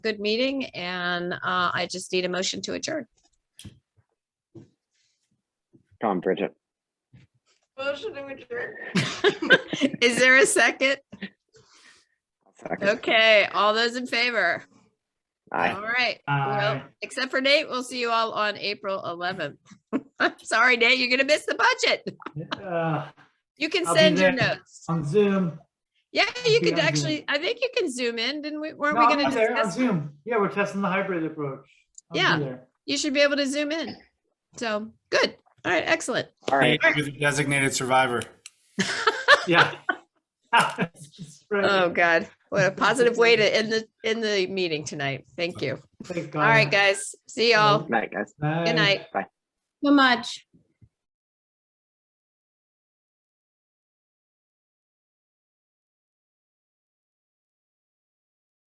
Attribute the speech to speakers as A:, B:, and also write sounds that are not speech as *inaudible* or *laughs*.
A: good meeting and uh, I just need a motion to adjourn.
B: Come on, Bridget.
C: Motion to adjourn.
A: Is there a second?
B: Second.
A: Okay, all those in favor?
B: Aye.
A: All right. Well,
D: Aye.
A: except for Nate, we'll see you all on April 11th. *laughs* I'm sorry, Nate, you're gonna miss the budget.
D: Uh,
A: You can
D: I'll be
A: send your
D: there.
A: notes.
D: On Zoom.
A: Yeah, you
D: be
A: could
D: on Zoom.
A: actually, I think you can zoom in, didn't we? Weren't
D: No,
A: we
D: I'm
A: gonna
D: there on
A: discuss?
D: Zoom. Yeah, we're testing the hybrid approach. I'll be
A: Yeah.
D: there.
A: You should be able to zoom in. So, good. All right, excellent.
B: All right.
E: You're the Designated survivor.
D: Yeah. *laughs* Right.
A: Oh, God. What a positive way to end the, end the meeting tonight. Thank you.
D: Thank
A: All right,
D: God.
A: guys. See y'all.
B: Night, guys.
A: Good
D: Bye.
A: night.
B: Bye.
A: So much.